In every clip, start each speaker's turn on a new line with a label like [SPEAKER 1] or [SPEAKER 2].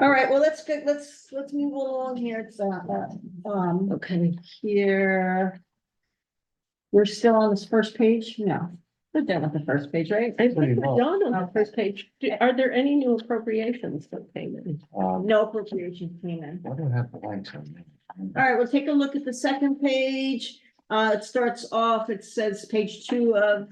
[SPEAKER 1] All right, well, let's, get- let's, let's move along here. It's, uh, um,
[SPEAKER 2] Okay,
[SPEAKER 1] here. We're still on this first page? No, we're done with the first page, right?
[SPEAKER 2] I think we're
[SPEAKER 3] Pretty well.
[SPEAKER 2] done on the first page. Do- Are there any new appropriations that came in?
[SPEAKER 3] Um,
[SPEAKER 1] No appropriation came in.
[SPEAKER 3] why do I have blanks on that?
[SPEAKER 1] All right, we'll take a look at the second page. Uh, it starts off, it says page two of,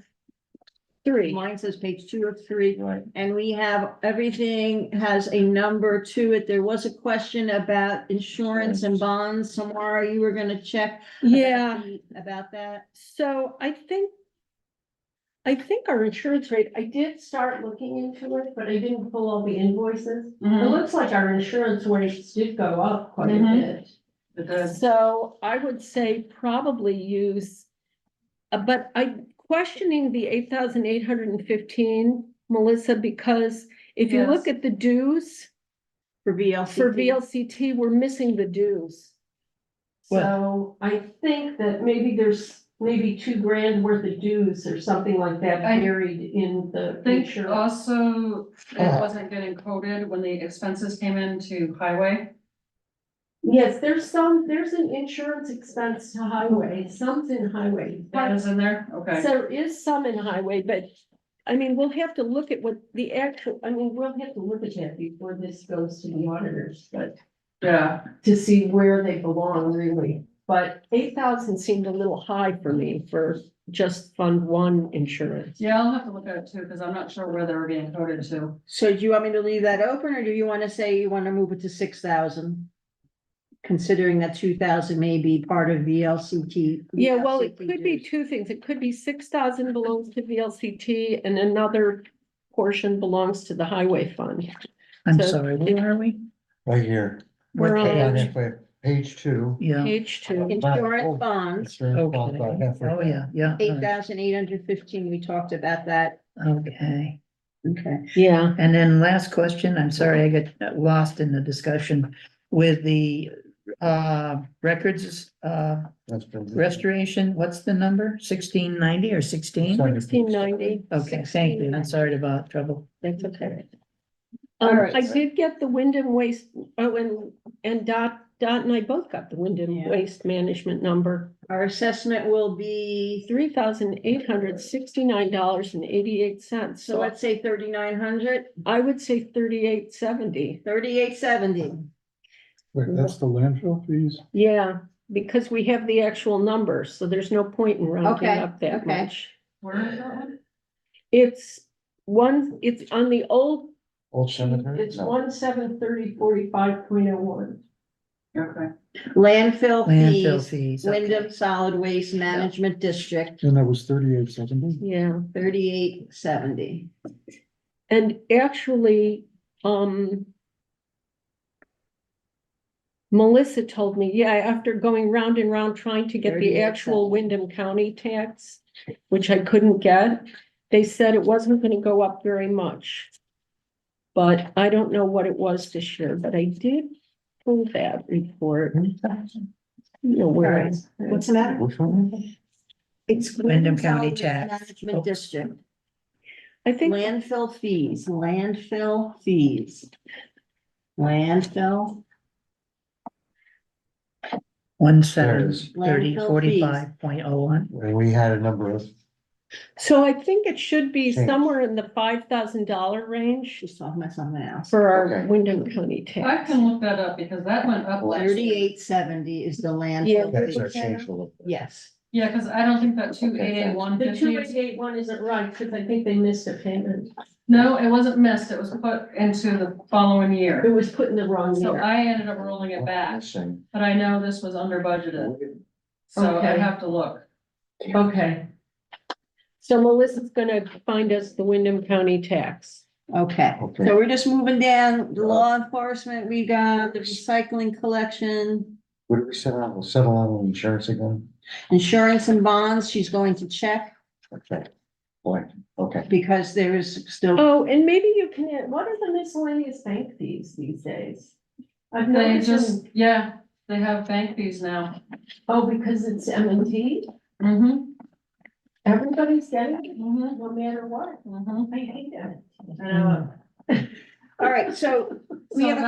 [SPEAKER 2] Three,
[SPEAKER 1] mine says page two of three.
[SPEAKER 3] Right,
[SPEAKER 1] And we have, everything has a number to it. There was a question about insurance and bonds. Samara, you were gonna check.
[SPEAKER 2] yeah,
[SPEAKER 1] About that.
[SPEAKER 2] so I think. I think our insurance rate, I did start looking into it, but I didn't pull all the invoices. It looks like our insurance rates did go up quite a
[SPEAKER 1] Mhm.
[SPEAKER 2] bit. Mm-hmm. So I would say probably use, uh, but I questioning the eight thousand eight hundred and fifteen, Melissa, because if you look at the dues
[SPEAKER 1] For VLCT.
[SPEAKER 2] for VLCT, we're missing the dues. So I think that maybe there's maybe two grand worth of dues or something like that
[SPEAKER 4] I-
[SPEAKER 2] buried in the
[SPEAKER 4] Think
[SPEAKER 2] insurance.
[SPEAKER 4] also,
[SPEAKER 5] Uh-huh.
[SPEAKER 4] it wasn't getting coded when the expenses came into highway.
[SPEAKER 2] Yes, there's some, there's an insurance expense to highway, some's in highway.
[SPEAKER 4] That is in there, okay.
[SPEAKER 2] So There is some in highway, but I mean, we'll have to look at what the actual, I mean, we'll have to look at that before this goes to the auditors, but
[SPEAKER 4] Yeah,
[SPEAKER 2] to see where they belong really. But eight thousand seemed a little high for me for just Fund One insurance.
[SPEAKER 4] yeah, I'll have to look at it too, because I'm not sure where they were being coded to.
[SPEAKER 1] So do you want me to leave that open or do you want to say you want to move it to six thousand? Considering that two thousand may be part of VLCT.
[SPEAKER 2] Yeah, well, it could be
[SPEAKER 1] VLCT.
[SPEAKER 2] two things. It could be six thousand belongs to VLCT and another portion belongs to the highway fund.
[SPEAKER 5] I'm
[SPEAKER 2] So
[SPEAKER 5] sorry, where are we?
[SPEAKER 3] right here,
[SPEAKER 5] What
[SPEAKER 2] We're on-
[SPEAKER 3] Down
[SPEAKER 5] page?
[SPEAKER 3] halfway, page two.
[SPEAKER 5] Yeah,
[SPEAKER 2] Page two.
[SPEAKER 1] Insurance bonds,
[SPEAKER 3] It's very
[SPEAKER 5] okay.
[SPEAKER 3] small, about halfway
[SPEAKER 5] Oh,
[SPEAKER 3] down.
[SPEAKER 5] yeah, yeah. all
[SPEAKER 1] eight
[SPEAKER 5] right.
[SPEAKER 1] thousand eight hundred fifteen, we talked about that.
[SPEAKER 5] Okay.
[SPEAKER 1] Okay.
[SPEAKER 2] Yeah.
[SPEAKER 5] And then last question, I'm sorry, I got lost in the discussion with the uh records uh
[SPEAKER 3] That's been-
[SPEAKER 5] restoration, what's the number? Sixteen ninety or sixteen?
[SPEAKER 3] Sorry.
[SPEAKER 2] Sixteen ninety.
[SPEAKER 5] Okay, thank you. I'm sorry about trouble.
[SPEAKER 2] That's okay.
[SPEAKER 1] All
[SPEAKER 2] Um,
[SPEAKER 1] right.
[SPEAKER 2] I did get the Wyndham Waste, oh, and, and Dot, Dot and I both got the Wyndham
[SPEAKER 1] Yeah.
[SPEAKER 2] Waste Management number.
[SPEAKER 1] Our assessment will be,
[SPEAKER 2] Three thousand eight hundred sixty-nine dollars and eighty-eight cents,
[SPEAKER 1] so
[SPEAKER 2] so
[SPEAKER 1] let's say thirty-nine hundred,
[SPEAKER 2] I would say thirty-eight seventy.
[SPEAKER 1] thirty-eight seventy.
[SPEAKER 6] Wait, that's the landfill fees?
[SPEAKER 2] Yeah, because we have the actual numbers, so there's no point in rounding
[SPEAKER 1] Okay,
[SPEAKER 2] up that
[SPEAKER 1] okay.
[SPEAKER 2] much.
[SPEAKER 4] Where is that one?
[SPEAKER 2] It's one, it's on the old.
[SPEAKER 3] Old cemetery? No.
[SPEAKER 2] seven thirty forty-five point oh one.
[SPEAKER 4] Okay,
[SPEAKER 1] Landfill
[SPEAKER 5] Landfill
[SPEAKER 1] fees,
[SPEAKER 5] fees. okay.
[SPEAKER 1] Wyndham Solid Waste Management District,
[SPEAKER 6] And that was thirty-eight seventy?
[SPEAKER 2] Yeah.
[SPEAKER 1] thirty-eight seventy.
[SPEAKER 2] And actually, um. Melissa told me, yeah, after going round and round trying to get the
[SPEAKER 1] 38
[SPEAKER 2] actual
[SPEAKER 1] cents.
[SPEAKER 2] Wyndham County tax, which I couldn't get. They said it wasn't gonna go up very much. But I don't know what it was this year, but I did pull that report.
[SPEAKER 3] Hmm.
[SPEAKER 2] You know, where I-
[SPEAKER 1] the matter?
[SPEAKER 3] Which one?
[SPEAKER 1] It's
[SPEAKER 5] Wyndham County
[SPEAKER 1] Solid Waste
[SPEAKER 5] tax.
[SPEAKER 1] Management District.
[SPEAKER 2] I think.
[SPEAKER 1] Landfill fees, landfill fees. Landfill,
[SPEAKER 5] One
[SPEAKER 3] There it
[SPEAKER 5] seven
[SPEAKER 3] is.
[SPEAKER 1] Landfill
[SPEAKER 5] thirty
[SPEAKER 1] fees.
[SPEAKER 5] forty-five point oh one.
[SPEAKER 3] And we had a number of,
[SPEAKER 2] So I think it should be
[SPEAKER 3] Change.
[SPEAKER 2] somewhere in the five thousand dollar range
[SPEAKER 1] she's talking about something else.
[SPEAKER 2] for our
[SPEAKER 3] Okay.
[SPEAKER 2] Wyndham County
[SPEAKER 4] I
[SPEAKER 2] tax.
[SPEAKER 4] can look that up because that went up last year.
[SPEAKER 1] Thirty-eight seventy is the
[SPEAKER 2] Yeah.
[SPEAKER 1] landfill.
[SPEAKER 3] that's our
[SPEAKER 1] fee.
[SPEAKER 3] change a little. bit.
[SPEAKER 1] Yes,
[SPEAKER 4] Yeah, because I don't think that two eighty-eight one
[SPEAKER 2] The two
[SPEAKER 4] fifty,
[SPEAKER 2] eighty-eight one isn't right, because I think they missed a payment.
[SPEAKER 4] no, it wasn't missed, it was put into the following
[SPEAKER 2] It
[SPEAKER 4] year.
[SPEAKER 2] was put in the wrong
[SPEAKER 4] So
[SPEAKER 2] year.
[SPEAKER 4] I ended up rolling it back,
[SPEAKER 3] Missing.
[SPEAKER 4] but I know this was under budgeted, so I
[SPEAKER 2] Okay.
[SPEAKER 4] have to look.
[SPEAKER 2] Okay. So Melissa's gonna find us the Wyndham County tax.
[SPEAKER 1] okay.
[SPEAKER 3] Okay.
[SPEAKER 1] So we're just moving down, the law enforcement, we got the recycling collection,
[SPEAKER 3] What did we settle on? We'll settle on insurance again?
[SPEAKER 1] insurance and bonds, she's going to check
[SPEAKER 3] Okay. Boy, okay.
[SPEAKER 1] because there is still.
[SPEAKER 2] Oh, and maybe you can, add- what are the miscellaneous bank fees these days? I've
[SPEAKER 4] They
[SPEAKER 2] noticed,
[SPEAKER 4] just,
[SPEAKER 2] them-
[SPEAKER 4] yeah, they have bank fees now.
[SPEAKER 2] oh, because it's M and T,
[SPEAKER 4] Mm-hmm,
[SPEAKER 2] everybody's getting it,
[SPEAKER 4] mm-hmm,
[SPEAKER 2] no matter what.
[SPEAKER 4] mm-hmm.
[SPEAKER 2] I hate that.
[SPEAKER 4] I know.
[SPEAKER 1] All right, so we
[SPEAKER 4] So
[SPEAKER 1] have a
[SPEAKER 4] that-